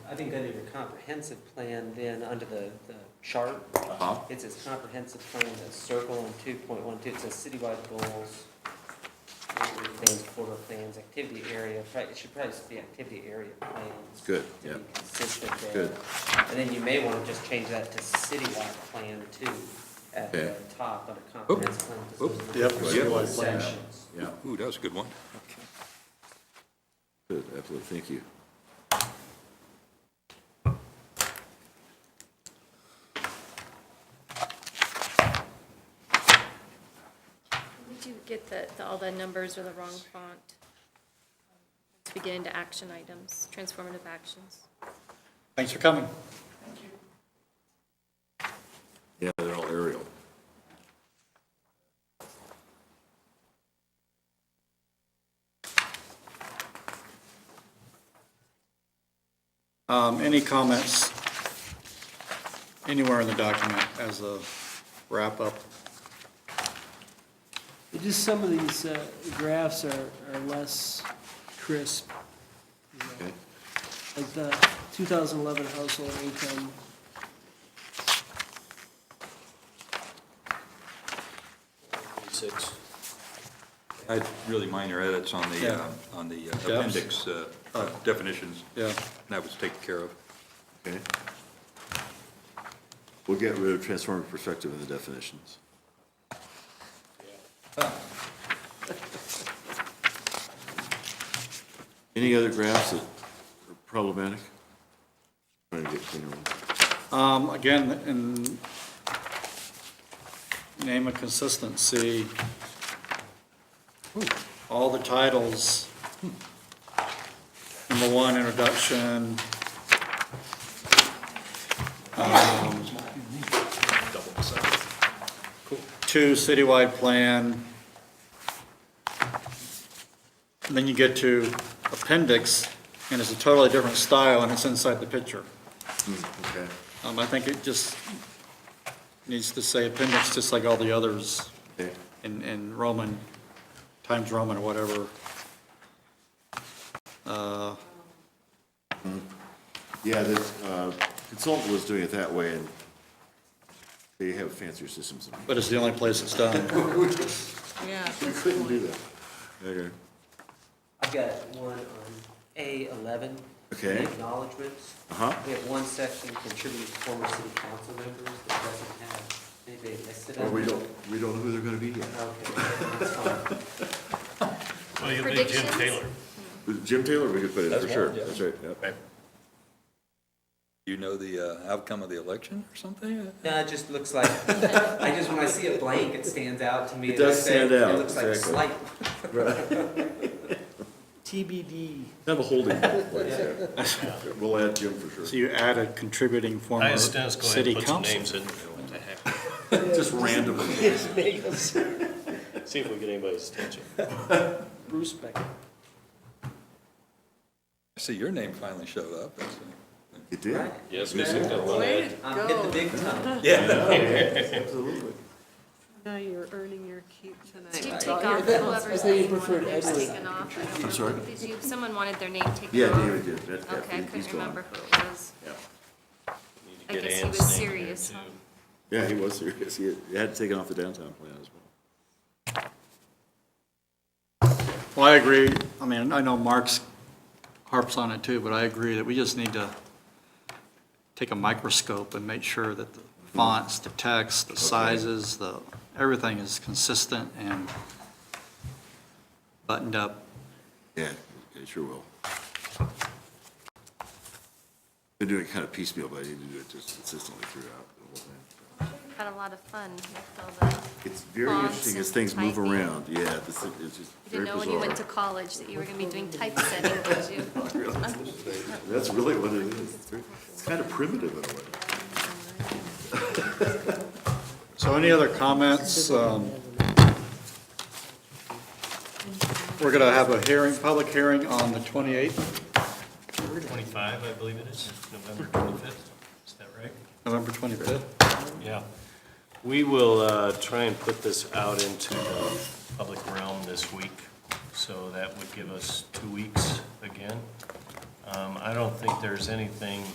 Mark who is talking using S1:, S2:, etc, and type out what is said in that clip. S1: I think under your comprehensive plan, then, under the, the chart,
S2: Uh-huh.
S1: it says comprehensive plan, that circle in two point one two, it says citywide goals, neighborhood plans, corridor plans, activity area, Right, it should probably just be activity area plans.
S2: Good,
S1: to
S2: yeah.
S1: be Consistent there.
S2: Good.
S1: And then you may want to just change that to citywide plan too, at the
S2: Okay.
S1: top, under comprehensive plan. 'cause
S2: Oop.
S1: those are
S3: Yep,
S1: the
S2: citywide plan.
S1: sections.
S2: Yeah,
S4: Ooh, that was a good one.
S2: good, absolutely, thank you.
S5: Did you get the, the- all the numbers or the wrong font? Let's begin into action items, transformative actions.
S3: Thanks for coming.
S2: Yeah, they're all aerial.
S3: Um, any comments anywhere in the document as a wrap-up?
S6: Just some of these uh, graphs are, are less crisp,
S2: Okay.
S6: like the 2011 household income.
S3: Six.
S4: I had really minor edits on the,
S3: Yeah.
S4: uh, on the uh,
S3: Yeah.
S4: appendix uh,
S3: Oh.
S4: definitions.
S3: Yeah,
S4: and That was taken care of.
S2: Okay. We'll get rid of transformative perspective in the definitions. Any other graphs that are problematic? Trying to get cleaner ones.
S3: um, again, in name of consistency, all the titles, number one, introduction, um, two, citywide plan. And then you get to appendix, and it's a totally different style, and it's inside the picture.
S2: Okay.
S3: Um, I think it just needs to say appendix, just like all the others
S2: Okay.
S3: in, in Roman, Times Roman or whatever. Uh,
S2: Yeah, this, uh, consultant was doing it that way, and they have fancier systems than
S3: But it's the only place it's done.
S7: Yeah.
S2: we. We couldn't do that. Okay.
S1: I've got one on A eleven.
S2: Okay.
S1: the Acknowledgements.
S2: Uh-huh.
S1: We have one section contributing to former city council members that doesn't have anybody listed.
S2: Or
S1: on
S2: we
S1: it.
S2: don't, we don't know who they're gonna be yet.
S1: Okay, that's fine.
S8: Well, you'll need Jim
S5: Predictions?
S8: Taylor.
S2: Jim Taylor, we could put in, for sure,
S4: one, yeah.
S2: that's right, yep.
S4: You know the uh, outcome of the election or something?
S1: No, it just looks like, I just, when I see a blank, it stands out to me.
S2: It
S1: and I
S2: does
S1: say,
S2: stand out,
S1: It looks like
S2: exactly.
S1: slight.
S6: TBD.
S2: Have a holding place there. We'll add Jim for
S3: So
S2: sure.
S3: you add a contributing
S8: I
S3: former
S8: asked Dennis, go ahead
S3: city
S8: and put some
S3: council.
S8: names in. What the heck?
S2: Just randomly.
S8: See if we get anybody's attention.
S6: Bruce Becker.
S4: I see your name finally showed up. That's, uh,
S2: It did,
S8: Yes, we picked up one.
S7: Way to
S1: I'm hitting um, the
S7: go.
S1: big time.
S2: absolutely.
S7: Now you're earning your keep
S5: Did you
S7: tonight.
S5: take off whoever's
S6: I think you
S5: name
S6: preferred
S5: wanted theirs
S6: Edward.
S5: taken off? I don't
S2: I'm sorry?
S5: know. Did you, someone wanted their name taken off?
S2: Yeah, David did, that, yeah,
S5: Okay, I
S2: he- he's
S5: couldn't
S2: gone.
S5: remember who it was.
S2: Yeah.
S8: Need to
S5: I
S8: get
S5: guess he
S8: Ann's
S5: was
S8: name in there,
S5: serious,
S8: too.
S5: huh?
S2: Yeah, he was serious, he had- he had taken off the downtown plan as well.
S3: Well, I agree, I mean, I know Mark's harps on it too, but I agree that we just need to take a microscope and make sure that the fonts, the text, the sizes, the, everything is consistent and buttoned up.
S2: Yeah, it sure will. Been doing it kind of piecemeal, but I need to do it just consistently throughout the whole thing.
S5: Had a lot of fun with all the,
S2: It's very
S5: Fonts
S2: interesting as
S5: and
S2: things move
S5: typing.
S2: around, yeah, this is, it's just
S5: you didn't
S2: very
S5: know when you
S2: bizarre.
S5: went to college that you were gonna be doing typesetting, did you?
S2: That's really what it is, It's very- it's kind of primitive in a way.
S3: So any other comments? Um, We're going to have a hearing, public hearing on the 28th,
S8: Twenty-five, I believe it is, November twenty-fifth, is that right?
S3: November 25th.
S8: Yeah. We will uh, try and put this out into the public realm this week, so that would give us two weeks again. Um, Um, I don't think there's anything